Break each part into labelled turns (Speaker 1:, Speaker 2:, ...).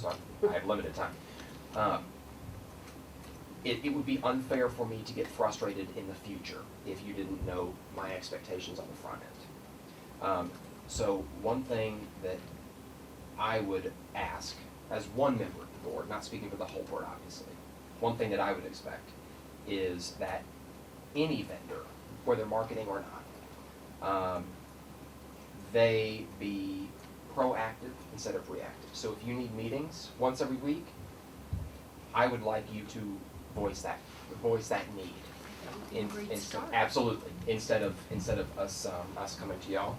Speaker 1: so I'm, I have limited time. Um, It, it would be unfair for me to get frustrated in the future if you didn't know my expectations on the front end. Um, So one thing that I would ask, as one member of the board, not speaking for the whole board obviously, one thing that I would expect is that any vendor, whether marketing or not, um, they be proactive instead of reactive. So if you need meetings once every week, I would like you to voice that, voice that need. In,
Speaker 2: Great
Speaker 1: in-
Speaker 2: start.
Speaker 1: absolutely, instead of, instead of us, um, us coming to y'all.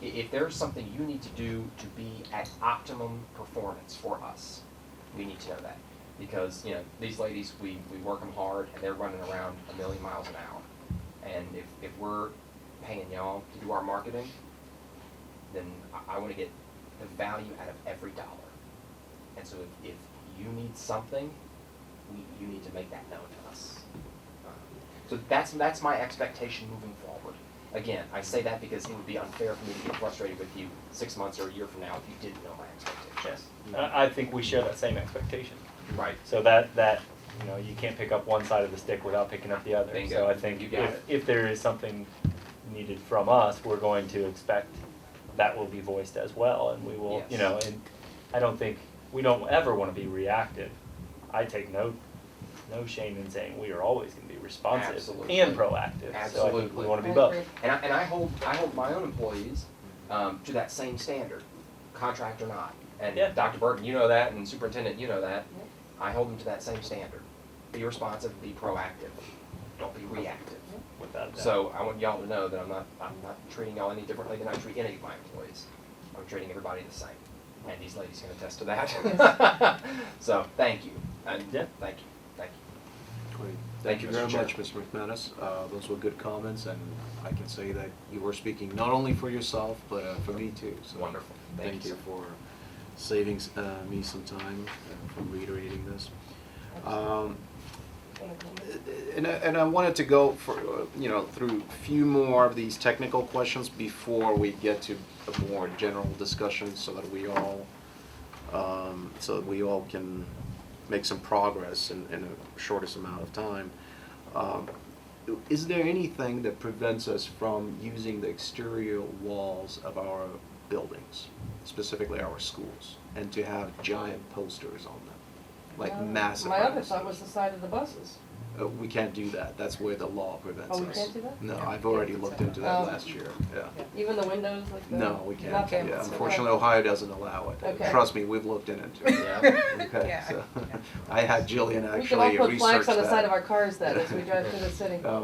Speaker 1: I- if there's something you need to do to be at optimum performance for us, we need to know that. Because, you know, these ladies, we, we work them hard and they're running around a million miles an hour. And if, if we're paying y'all to do our marketing, then I, I wanna get the value out of every dollar. And so if, if you need something, we, you need to make that known to us. Um, So that's, that's my expectation moving forward. Again, I say that because it would be unfair for me to get frustrated with you six months or a year from now if you didn't know my
Speaker 3: Yes,
Speaker 1: expectations.
Speaker 3: I, I think we share that same expectation.
Speaker 1: Right.
Speaker 3: So that, that, you know, you can't pick up one side of the stick without picking up the other.
Speaker 1: Bingo.
Speaker 3: So I think
Speaker 1: You got
Speaker 3: if,
Speaker 1: it.
Speaker 3: if there is something needed from us, we're going to expect that will be voiced as well and we will, you
Speaker 1: Yes.
Speaker 3: know, and I don't think, we don't ever wanna be reactive. I take no, no shame in saying we are always gonna be responsive
Speaker 1: Absolutely.
Speaker 3: and proactive. So I think
Speaker 1: Absolutely.
Speaker 3: we wanna be
Speaker 2: I
Speaker 3: both.
Speaker 2: agree.
Speaker 1: And I, and I hold, I hold my own employees, um, to that same standard, contract or not. And
Speaker 3: Yeah.
Speaker 1: Dr. Burton, you know that, and Superintendent, you know that. I hold them to that same standard. Be responsive, be proactive, don't be reactive.
Speaker 3: Without a doubt.
Speaker 1: So I want y'all to know that I'm not, I'm not treating y'all any differently than I treat any of my employees. I'm treating everybody the same, and these ladies can attest to that. So, thank you, and
Speaker 3: Yeah.
Speaker 1: thank you, thank you.
Speaker 4: Great.
Speaker 1: Thank
Speaker 4: Thank
Speaker 1: you,
Speaker 4: you
Speaker 1: Mr.
Speaker 4: very
Speaker 1: Chair.
Speaker 4: much, Mr. McManus. Uh, Those were good comments, and I can say that you were speaking not only for yourself, but uh, for me too. So
Speaker 1: Wonderful. Thank
Speaker 4: Thank
Speaker 1: you,
Speaker 4: you
Speaker 1: sir.
Speaker 4: for saving s- uh, me some time uh, for reiterating this. Um, And I, and I wanted to go for, uh, you know, through a few more of these technical questions before we get to a more general discussion so that we all, um, so that we all can make some progress in, in the shortest amount of time. Um, Is there anything that prevents us from using the exterior walls of our buildings, specifically our schools, and to have giant posters on them? Like
Speaker 5: Um,
Speaker 4: massive.
Speaker 5: My other
Speaker 4: ones?
Speaker 5: thought was the side of the buses.
Speaker 4: Uh, we can't do that, that's where the law prevents us.
Speaker 5: Oh, we can't do that?
Speaker 4: No, I've already looked into that
Speaker 5: Oh.
Speaker 4: last year, yeah.
Speaker 5: Even the windows, like the.
Speaker 4: No, we
Speaker 5: Not
Speaker 4: can't,
Speaker 5: them.
Speaker 4: yeah,
Speaker 5: Okay.
Speaker 4: unfortunately, Ohio doesn't allow it,
Speaker 5: Okay.
Speaker 4: trust me, we've looked into it,
Speaker 1: Yeah,
Speaker 4: okay,
Speaker 6: Yeah.
Speaker 4: so, I had Jillian
Speaker 5: We could all
Speaker 4: actually research that.
Speaker 5: put flags on the side of our cars then, as we drive through the city.
Speaker 4: Uh,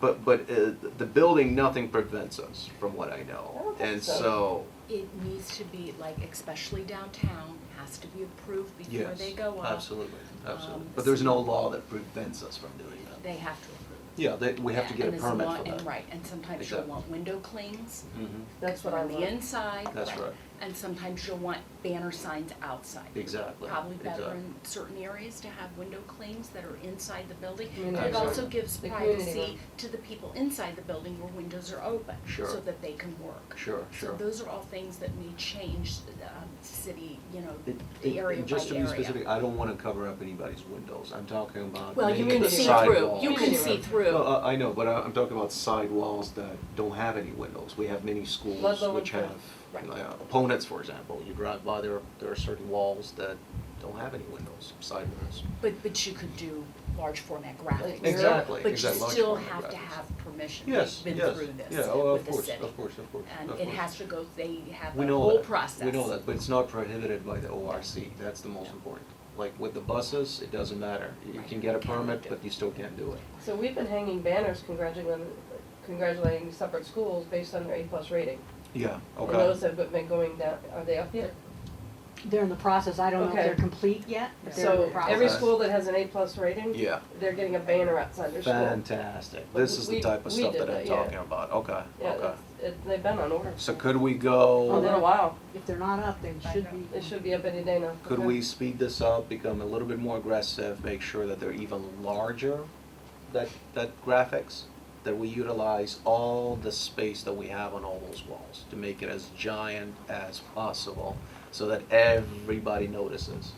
Speaker 4: But, but, uh, the building, nothing prevents us, from what I know.
Speaker 5: I don't think
Speaker 4: And
Speaker 5: so.
Speaker 4: so,
Speaker 2: It needs to be, like, especially downtown, has to be approved before
Speaker 4: yes,
Speaker 2: they go up.
Speaker 4: absolutely, absolutely,
Speaker 2: um,
Speaker 4: but there's no law that prevents us from doing that.
Speaker 2: They have to approve.
Speaker 4: Yeah, that, we have to get a
Speaker 2: And it's
Speaker 4: permit
Speaker 2: not-
Speaker 4: for that.
Speaker 2: and right, and sometimes you'll
Speaker 4: Exactly.
Speaker 2: want window clings.
Speaker 4: Mhm.
Speaker 5: That's what I
Speaker 2: on the
Speaker 5: learned.
Speaker 2: inside.
Speaker 4: That's right.
Speaker 2: And sometimes you'll want banner signs outside.
Speaker 4: Exactly,
Speaker 2: Probably better
Speaker 4: exactly.
Speaker 2: in certain areas to have window clings that are inside the building.
Speaker 5: Community
Speaker 2: It also
Speaker 4: room.
Speaker 2: gives
Speaker 5: The community
Speaker 2: privacy
Speaker 5: room.
Speaker 2: to the people inside the building where windows are open.
Speaker 4: Sure.
Speaker 2: So that they can work.
Speaker 4: Sure,
Speaker 2: So
Speaker 4: sure.
Speaker 2: those are all things that may change the um, city, you know,
Speaker 4: It-
Speaker 2: the area
Speaker 4: it-
Speaker 2: by area.
Speaker 4: and Just to be specific, I don't wanna cover up anybody's windows, I'm talking about
Speaker 2: Well, you
Speaker 4: making
Speaker 2: can
Speaker 4: the
Speaker 2: see through,
Speaker 4: sidewalls.
Speaker 2: you can see
Speaker 5: Community
Speaker 2: through.
Speaker 4: No, I, I know, but I, I'm talking about sidewalls that don't have any windows, we have many schools
Speaker 5: Ludlow
Speaker 4: which
Speaker 5: and
Speaker 4: have,
Speaker 2: Right.
Speaker 4: like, uh, opponents, for example, you drive by, there, are- there are certain walls that don't have any windows, sidewalls.
Speaker 2: But, but you could do large format graphics.
Speaker 4: Exactly,
Speaker 2: But
Speaker 4: exactly,
Speaker 2: you
Speaker 4: large
Speaker 2: still
Speaker 4: format
Speaker 2: have to
Speaker 4: graphics.
Speaker 2: have permission.
Speaker 4: Yes,
Speaker 2: We've been
Speaker 4: yes,
Speaker 2: through this
Speaker 4: yeah, oh,
Speaker 2: with
Speaker 4: of
Speaker 2: the
Speaker 4: course,
Speaker 2: city.
Speaker 4: of course, of course,
Speaker 2: And
Speaker 4: of
Speaker 2: it
Speaker 4: course.
Speaker 2: has to go, they have
Speaker 4: We
Speaker 2: a
Speaker 4: know
Speaker 2: whole
Speaker 4: that.
Speaker 2: process.
Speaker 4: We know that, but it's not prohibited by the ORC, that's the most important. Like with the buses, it doesn't matter, you
Speaker 2: Right.
Speaker 4: can get a
Speaker 2: Can't
Speaker 4: permit,
Speaker 2: do it.
Speaker 4: but you still can't do it.
Speaker 5: So we've been hanging banners congratulating, congratulating separate schools based on their A plus rating.
Speaker 4: Yeah, okay.
Speaker 5: And those have been going down, are they up yet?
Speaker 7: They're in the process, I don't know if
Speaker 5: Okay.
Speaker 7: they're complete yet, but they're in the
Speaker 5: So
Speaker 7: process.
Speaker 5: every school that has an A plus rating,
Speaker 4: Yeah.
Speaker 5: they're getting a banner outside their school.
Speaker 4: Fantastic.
Speaker 5: But
Speaker 4: This is the
Speaker 5: we-
Speaker 4: type of
Speaker 5: we
Speaker 4: stuff
Speaker 5: did
Speaker 4: that I'm
Speaker 5: that, yeah.
Speaker 4: talking about. Okay,
Speaker 5: Yeah,
Speaker 4: okay.
Speaker 5: that's, it, they've been on order.
Speaker 4: So could we
Speaker 5: Oh, been a
Speaker 4: go,
Speaker 5: while,
Speaker 7: If they're not up, they should be.
Speaker 5: it should be up any day now.
Speaker 4: could
Speaker 5: Okay.
Speaker 4: we speed this up, become a little bit more aggressive, make sure that they're even larger? That, that graphics, that we utilize all the space that we have on all those walls to make it as giant as possible so that everybody notices.